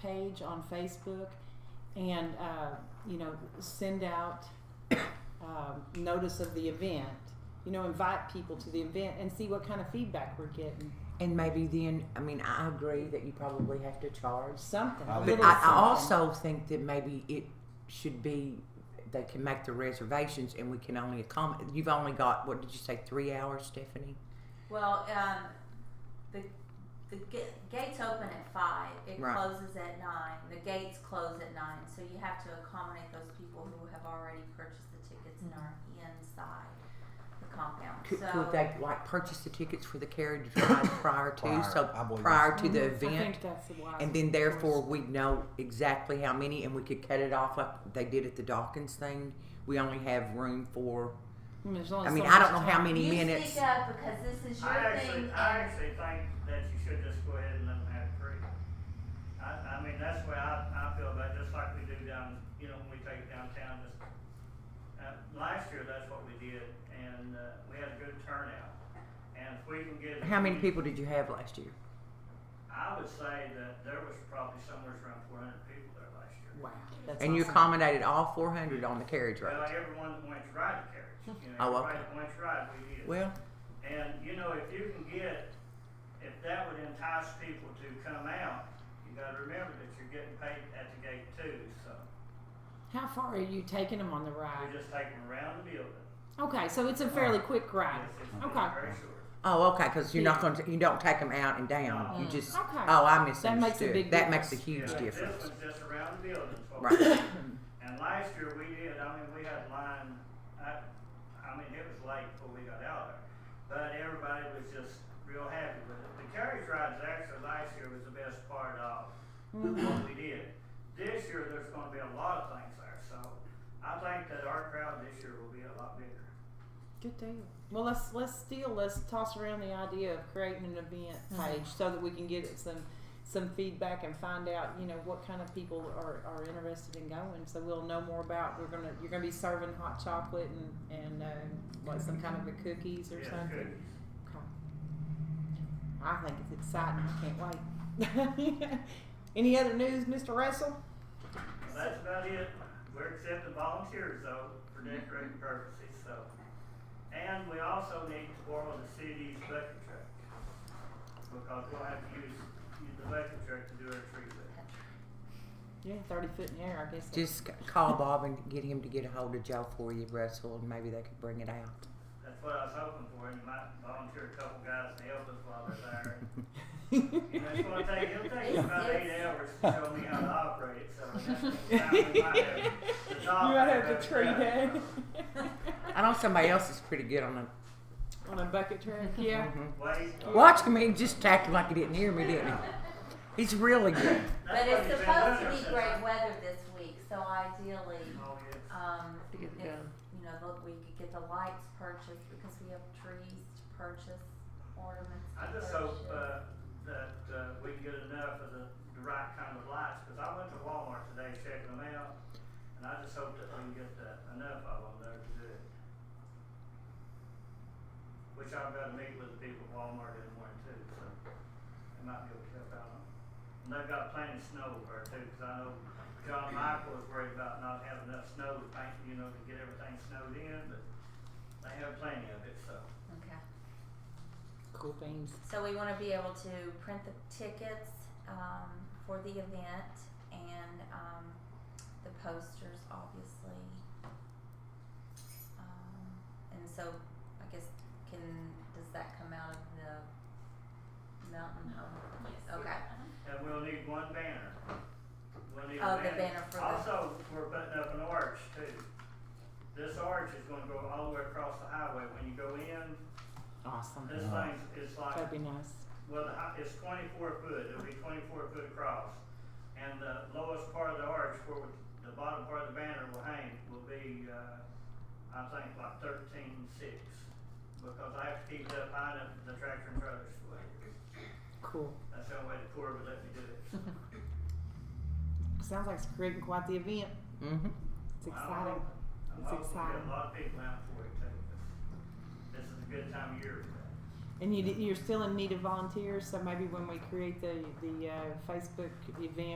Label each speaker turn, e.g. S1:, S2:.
S1: page on Facebook and, uh, you know, send out um, notice of the event. You know, invite people to the event and see what kind of feedback we're getting.
S2: And maybe then, I mean, I agree that you probably have to charge.
S1: Something. a
S3: But
S2: But
S1: little
S2: I, I
S1: something.
S2: also think that maybe it should be they can make the reservations and we can only accommodate. You've only got what did you say three hours, Stephanie?
S4: Well, um, the the ga- gates open at five. It
S2: Right.
S4: closes at nine. The gates close at nine, so you have to accommodate those people who have already purchased the tickets and are inside the compound.
S2: Mm-hmm. Could,
S4: so
S2: could they like purchase the tickets for the carriage ride prior to
S3: Prior,
S2: so
S3: I believe
S2: prior to the
S1: Mhm. I
S2: event?
S1: think that's the wise
S2: And then therefore
S1: course.
S2: we know exactly how many and we could cut it off like they did at the Dawkins thing. We only have room for
S1: I mean, Mm, there's only
S2: I
S1: so
S2: mean,
S1: much
S2: I don't know how
S1: time.
S2: many
S4: you
S2: minutes
S4: speak up because this is your
S5: I actually,
S4: thing.
S5: I
S4: and-
S5: actually think that you should just go ahead and let them have it free. I, I mean, that's the way I, I feel about it, just like we do down, you know, when we take downtown, just, uh, last year, that's what we did, and, uh, we had a good turnout. And if we can get.
S2: how many people did you have last year?
S5: I would say that there was probably somewhere around four hundred people there last year.
S1: Wow. That's
S2: And you
S1: awesome.
S2: accommodated all four hundred on the carriage
S5: Well,
S2: ride.
S5: everyone that went to ride the carriage, you know,
S2: Oh, okay.
S5: everybody that went to ride, we did.
S2: Well,
S5: And, you know, if you can get, if that would entice people to come out, you gotta remember that you're getting paid at the gate too, so
S1: How far are you taking them on the
S5: we
S1: ride?
S5: just take them around the building.
S1: Okay, so it's a fairly quick ride.
S5: It's- it's
S1: Okay.
S5: Very short.
S2: Oh, okay. Because you're not going to you don't take them out and down. You just
S1: Mm. Okay.
S2: oh, I
S1: That
S2: misunderstood.
S1: makes a big
S2: That makes a
S1: difference.
S2: huge
S5: Yeah,
S2: difference.
S5: This one's just around the building, so.
S2: Right.
S5: And last year we did, I mean, we had line, I, I mean, it was late before we got out there. But everybody was just real happy with it. The carriage rides actually last year was the best part of what we did. This year, there's gonna be a lot of things there, so I think that our crowd this year will be a lot bigger.
S1: Good deal. Well, let's let's still let's toss around the idea of creating an event page so that we can get some some feedback and find out you know what kind of people are, are interested in going. So we'll know more about we're gonna you're gonna be serving hot chocolate and and uh, what some kind of a cookies or
S5: Yeah,
S1: something.
S5: good.
S1: Okay. I think it's exciting. I can't wait. Any other news, Mr. Russell?
S5: Well, That's about it. We're accepting volunteers though, for decorating purposes, so. And we also need to borrow the city's bucket truck. Because we'll have to use, use the bucket truck to do our tree lift.
S1: Yeah, thirty foot in the air. I guess. that's-
S2: Just c- call Bob and get him to get a hold of Joe for you, Russell, and maybe they could bring it out.
S5: That's what I was hoping for, and you might volunteer a couple guys to help us while they're there. And that's what I think, it'll take us about eight hours to show me how to operate it, so. that's the time we might have to talk
S1: You might have
S5: about
S1: to tree
S5: that.
S1: day
S2: I know somebody else is pretty good on a.
S1: on a bucket truck. Yeah.
S2: Mm-hmm.
S5: Wait.
S2: Watch him. He just acted like he didn't hear me, didn't he? He's really good.
S4: But
S5: That's
S4: it's
S5: what
S4: supposed to
S5: you've been doing
S4: be
S5: since
S4: great
S5: I-
S4: weather this week, so ideally,
S5: Oh, yes.
S4: um, if,
S2: Get it done.
S4: you know, look, we could get the lights purchased because we have trees to purchase, ornaments to
S5: I
S4: purchase.
S5: just hope, uh, that, uh, we can get enough of the, the right kind of lights, cause I went to Walmart today checking them out, and I just hope that we can get the, enough of them there to do it. Which I've gotta meet with the people at Walmart in the morning too, so they might be able to help out on. And they've got plenty of snow there too, cause I know John Michael was worried about not having enough snow to paint, you know, to get everything snowed in, but they have plenty of it, so.
S4: Okay.
S1: Cool beans.
S4: So we want to be able to print the tickets um, for the event and um, the posters, obviously. Um, and so, I guess, can does that come out of the mountain home? Okay.
S5: And we'll need one banner. We'll need
S4: Oh,
S5: a
S4: the banner for the-
S5: Also, we're putting up an arch too. This arch is gonna go all the way across the highway. When you go in,
S1: Awesome.
S5: this
S3: Wow.
S5: thing is like,
S1: That'd be nice.
S5: well, the hi- it's twenty-four foot, it'll be twenty-four foot across. And the lowest part of the arch where the bottom part of the banner will hang will be, uh, I think like thirteen-six. Because I have to keep it up high enough that the tractor and trailer's way.
S1: Cool.
S5: That's the only way the Corps would let me do it.
S1: Sounds like it's creating quite the event.
S2: Mm-hmm.
S1: It's
S5: Well,
S1: exciting.
S5: I'm
S1: It's
S5: hoping we get
S1: exciting.
S5: a lot of people out for it too. but This is a good time of year for that.
S1: And you, you're still in need of volunteers, so maybe when we create the, the uh, Facebook event,